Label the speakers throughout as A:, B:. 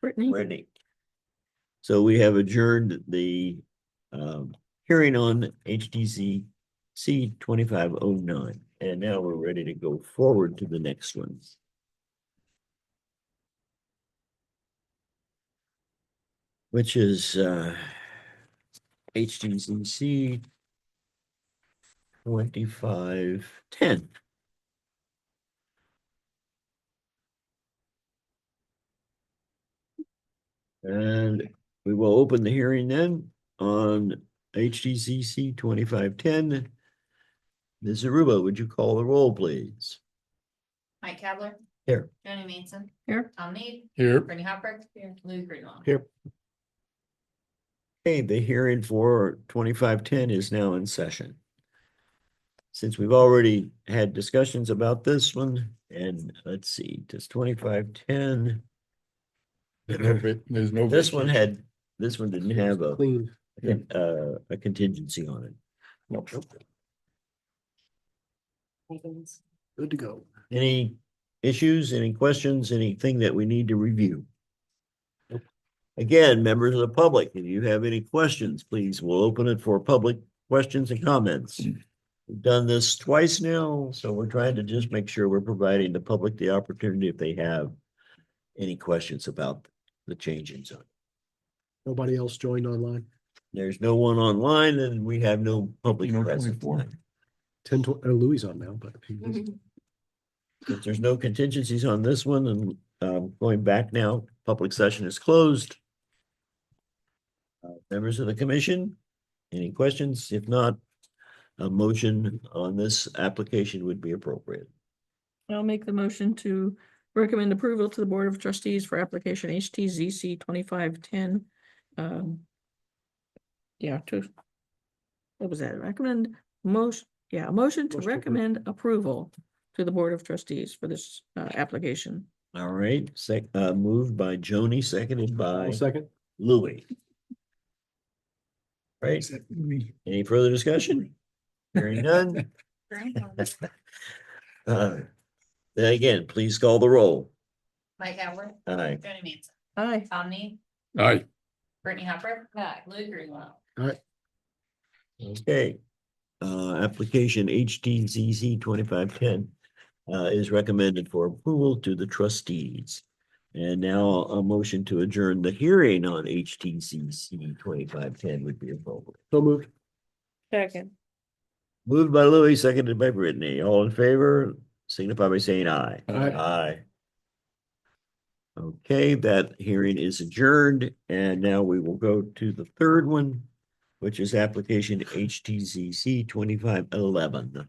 A: Brittany.
B: Brittany. So we have adjourned the um hearing on HDC C twenty-five oh nine, and now we're ready to go forward to the next one. Which is uh HDC C twenty-five ten. And we will open the hearing then on HDCC twenty-five ten. Ms. Aruba, would you call the roll, please?
C: Mike Kavler.
B: Here.
C: Johnny Manson.
A: Here.
C: Tom Need.
D: Here.
C: Brittany Hopper. Here. Lou Greenwell.
B: Here. Okay, the hearing for twenty-five ten is now in session. Since we've already had discussions about this one, and let's see, does twenty-five ten,
D: There's no va- There's no.
B: this one
D: vacancy.
B: had, this one didn't have a,
D: Clean.
B: uh, a contingency on it.
D: Nope. Good to go.
B: Any issues, any questions, anything that we need to review?
D: Nope.
B: Again, members of the public, if you have any questions, please, we'll open it for public questions and comments. We've done this twice now, so we're trying to just make sure we're providing the public the opportunity if they have any questions about the change in zone.
E: Nobody else joined online.
B: There's no one online and we have no public
D: You know,
B: present.
D: 24.
B: tonight.
E: Ten, tw- oh, Louis is on now, but he
B: Mm-hmm.
E: was-
B: If there's no contingencies on this one and um going back now, public session is closed. Uh, Members of the commission, any questions? If not, a motion on this application would be appropriate.
A: I'll make the motion to recommend approval to the Board of Trustees for application HTZC twenty-five ten. um, Yeah, to. What was that? Recommend motion, yeah, a motion to
E: Motion to approve.
A: recommend approval to the Board of Trustees for this uh application.
B: All right, sec, uh, moved by Joni, seconded by
E: One second.
B: Louis. Right, any further discussion? Hearing none, uh, then again, please call the roll.
C: Mike Kavler.
B: Aye.
C: Johnny Manson.
A: Aye.
C: Tom Need.
D: Aye.
C: Brittany Hopper. Uh, Lou Greenwell.
B: Okay, uh, application HTZZ twenty-five ten uh, is recommended for approval to the trustees. And now a motion to adjourn the hearing on HTCC twenty-five ten would be appropriate.
E: So moved.
A: Second.
B: Moved by Louis, seconded by Brittany. All in favor, signify by saying aye.
E: Aye.
B: Aye. Okay, that hearing is adjourned, and now we will go to the third one, which is application HTCC twenty-five eleven.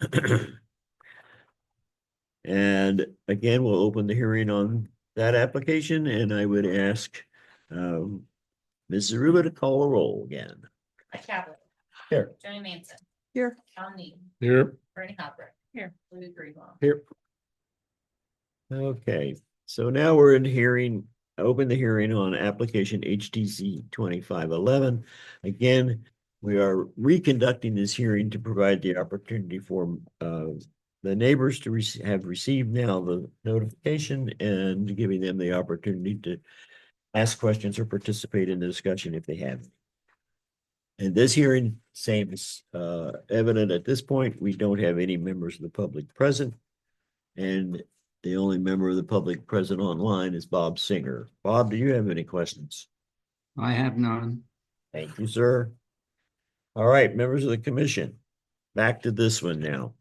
B: And again, we'll open the hearing on that application, and I would ask um Ms. Aruba to call a roll again.
C: Mike Kavler.
B: Here.
C: Johnny Manson.
A: Here.
C: Tom Need.
D: Here.
C: Brittany Hopper.
A: Here.
C: Lou Greenwell.
E: Here.
B: Okay, so now we're in hearing, open the hearing on application HTC twenty-five eleven. Again, we are reconducting this hearing to provide the opportunity for uh the neighbors to rec- have received now the notification and giving them the opportunity to ask questions or participate in the discussion if they have. And this hearing, same is uh evident at this point, we don't have any members of the public present. And the only member of the public present online is Bob Singer. Bob, do you have any questions?
F: I have none.
B: Thank you, sir. All right, members of the commission, back to this one now.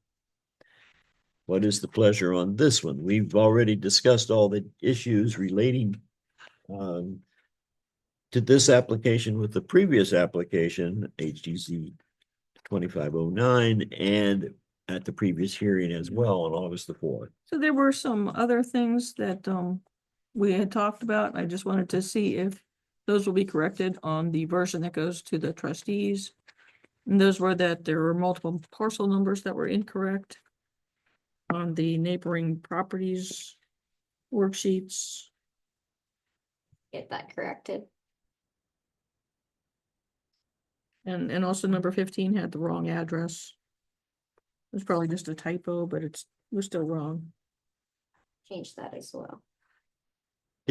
B: What is the pleasure on this one? We've already discussed all the issues relating um to this application with the previous application, HGZ twenty-five oh nine, and at the previous hearing as well on August the fourth.
A: So there were some other things that um we had talked about. I just wanted to see if those will be corrected on the version that goes to the trustees. And those were that there were multiple parcel numbers that were incorrect on the neighboring properties worksheets.
G: get that corrected.
A: And, and also number fifteen had the wrong address. It was probably just a typo, but it's, it was still wrong.
G: Change that as well.